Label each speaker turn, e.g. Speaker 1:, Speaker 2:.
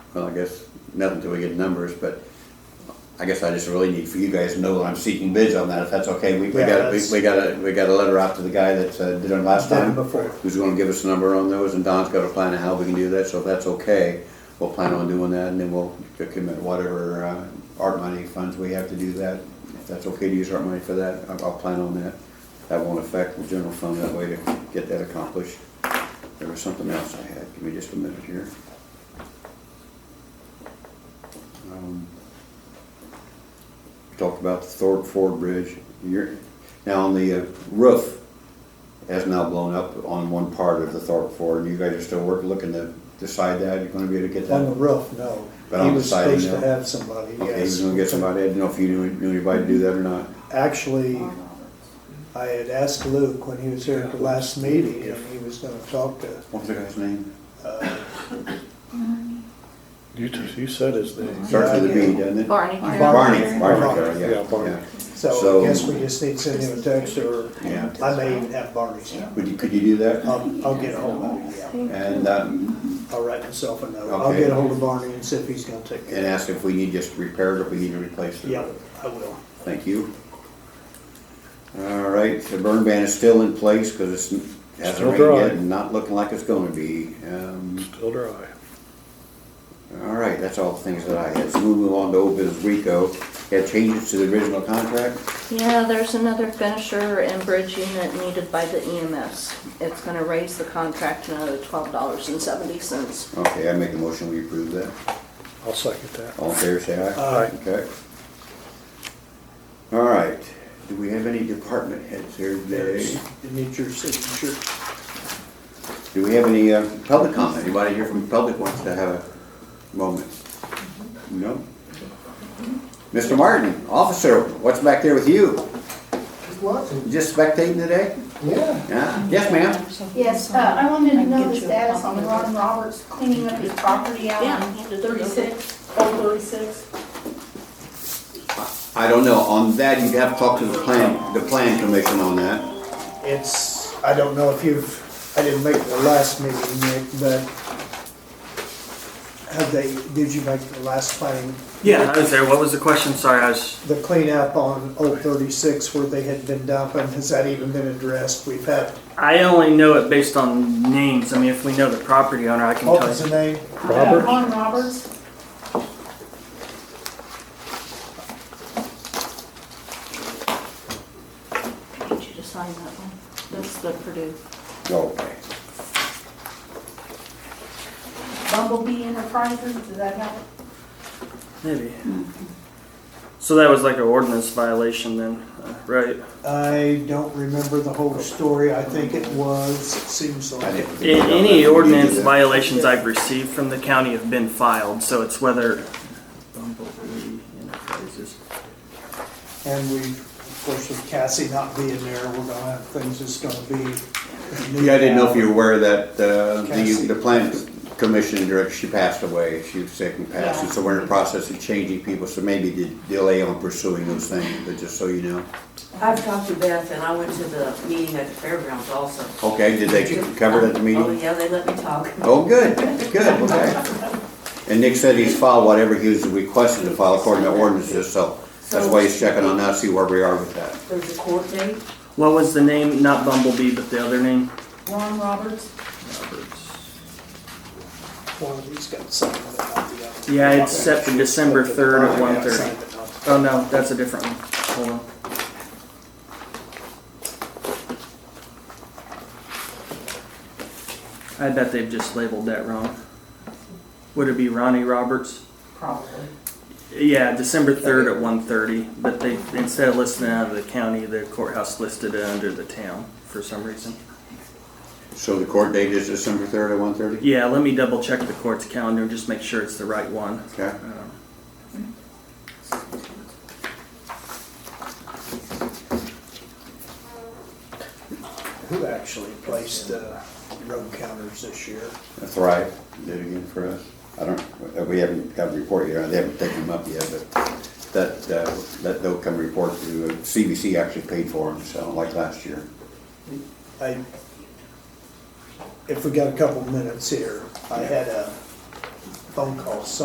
Speaker 1: well, I guess, nothing till we get numbers, but I guess I just really need for you guys to know that I'm seeking bids on that, if that's okay. We, we
Speaker 2: Yeah,
Speaker 1: got, we
Speaker 2: that's-
Speaker 1: we got a, we got a letter out to the guy that uh, did it last
Speaker 2: Done
Speaker 1: time.
Speaker 2: before.
Speaker 1: Who's gonna give us a number on those, and Don's got a plan of how we can do that, so if that's okay, we'll plan on doing that, and then we'll commit whatever, uh, art money funds we have to do that. If that's okay to use art money for that, I'll, I'll plan on that. That won't affect the general fund that way to get that accomplished. There was something else I had, give me just a minute here. Um, Talked about the Thorpe Ford Bridge. You're, now on the uh, roof has now blown up on one part of the Thorpe Ford. You guys are still working, looking to decide that, you're gonna be able to get
Speaker 2: On the
Speaker 1: that?
Speaker 2: roof, no.
Speaker 1: But on
Speaker 2: He
Speaker 1: the
Speaker 2: was
Speaker 1: siding,
Speaker 2: supposed to
Speaker 1: no.
Speaker 2: have somebody,
Speaker 1: Okay,
Speaker 2: yes.
Speaker 1: you're gonna get somebody, I didn't know if you knew, knew anybody to do that or not.
Speaker 2: Actually, I had asked Luke when he was here at the last meeting, and he was gonna talk to,
Speaker 1: What's the guy's name?
Speaker 2: uh,
Speaker 3: You, t- you said his name.
Speaker 1: Starts with a B, doesn't it?
Speaker 4: Oh, Barney.
Speaker 1: Barney, Barney,
Speaker 2: Barney.
Speaker 1: yeah,
Speaker 3: Yeah, Barney.
Speaker 1: yeah.
Speaker 2: so
Speaker 1: So-
Speaker 2: I guess we just need to send him a text, or
Speaker 1: Yeah.
Speaker 2: I may even have Barney's number.
Speaker 1: Would you, could you do that?
Speaker 2: I'll, I'll get ahold of him, oh, yeah.
Speaker 1: And, um,
Speaker 2: I'll write myself a note. I'll
Speaker 1: Okay.
Speaker 2: get ahold of Barney and see if he's gonna take
Speaker 1: and
Speaker 2: it.
Speaker 1: ask if we need just repairs or if we need to replace the
Speaker 2: Yeah,
Speaker 1: roof.
Speaker 2: I will.
Speaker 1: Thank you. All right, the burn ban is still in place because it's, hasn't
Speaker 3: Still
Speaker 1: rained
Speaker 3: dry.
Speaker 1: yet and not looking like it's gonna be. Um,
Speaker 3: Still dry.
Speaker 1: All right, that's all the things that I had. So moving on to old business Rico, had changes to the original contract.
Speaker 4: Yeah, there's another finisher and bridge unit needed by the EMS. It's gonna raise the contract another twelve dollars and seventy cents.
Speaker 1: Okay, I make a motion, we approve that.
Speaker 3: I'll second that.
Speaker 1: All in favor, say aye.
Speaker 2: Aye.
Speaker 1: Okay. All right, do we have any department heads here today?
Speaker 2: You need your signature.
Speaker 1: Do we have any uh, public comment? Anybody here from the public wants to have a moment? No? Mr. Martin, officer, what's back there with you?
Speaker 5: What?
Speaker 1: Just spectating today?
Speaker 5: Yeah.
Speaker 1: Yeah? Yes, ma'am?
Speaker 6: Yes, uh, I wanted to know the status
Speaker 4: on
Speaker 6: on Ron Roberts cleaning up his property out on thirty-six, old thirty-six.
Speaker 1: I don't know, on that, you'd have to talk to the plan, the plan commission on that.
Speaker 2: It's, I don't know if you've, I didn't make the last meeting, Nick, but have they, did you make the last planning,
Speaker 7: Yeah, I was there. What was the question? Sorry, I was.
Speaker 2: the cleanup on Old 36 where they had been dumping, has that even been addressed? We've had,
Speaker 7: I only know it based on names. I mean, if we know the property owner, I can
Speaker 2: what was
Speaker 7: tell
Speaker 2: the
Speaker 7: you.
Speaker 2: name?
Speaker 3: Robert?
Speaker 6: Ron Roberts,
Speaker 4: I need you to sign that one. That's the Purdue.
Speaker 1: Okay.
Speaker 6: Bumblebee Enterprises, does that help?
Speaker 7: Maybe. So that was like an ordinance violation then, uh, right?
Speaker 2: I don't remember the whole story, I think it was, it seems
Speaker 1: I
Speaker 2: like.
Speaker 1: didn't
Speaker 7: A-
Speaker 1: think about that.
Speaker 7: Any
Speaker 1: We
Speaker 7: ordinance
Speaker 1: did that.
Speaker 7: violations I've received from the county have been filed, so it's whether. Bumblebee Enterprises.
Speaker 2: And we, of course, with Cassie not being there, we're gonna have things that's gonna be.
Speaker 1: Yeah, I didn't know if you were aware that uh,
Speaker 2: Cassie.
Speaker 1: the, the plan commission director, she passed away, she was sick and passed, and so we're in the process of changing people, so maybe the delay on pursuing those things, but just so you know.
Speaker 8: I've talked to Beth and I went to the meeting at the fairgrounds also.
Speaker 1: Okay, did they cover it at the
Speaker 8: Oh,
Speaker 1: meeting?
Speaker 8: yeah, they let me talk.
Speaker 1: Oh, good, good, okay. And Nick said he's filed whatever he was requested to file according to ordinances, so that's why he's checking on us, see where we are with that.
Speaker 8: There's a court date.
Speaker 7: What was the name? Not Bumblebee, but the other name?
Speaker 6: Ron Roberts,
Speaker 7: Roberts.
Speaker 2: One of these got something about the other.
Speaker 7: Yeah, it's set for December 3rd at
Speaker 2: Oh, yeah,
Speaker 7: 1:30.
Speaker 2: signed it up.
Speaker 7: Oh no, that's a different one. Hold on. I bet they've just labeled that wrong. Would it be Ronnie Roberts?
Speaker 8: Probably.
Speaker 7: Yeah, December third at 1:30. But they instead of listing it under the county, the courthouse listed it under the town for some reason.
Speaker 1: So the court date is December third at one thirty?
Speaker 7: Yeah, let me double check the court's calendar and just make sure it's the right one.
Speaker 1: Okay.
Speaker 7: Um,
Speaker 2: Who actually placed the road counters this year?
Speaker 1: Thrive did it again for us. I don't, uh, we haven't got a report yet, they haven't taken them up yet, but that, uh, that they'll come report to, uh, CBC actually paid for them, so like last year.
Speaker 2: I, if we got a couple minutes here, I had a phone call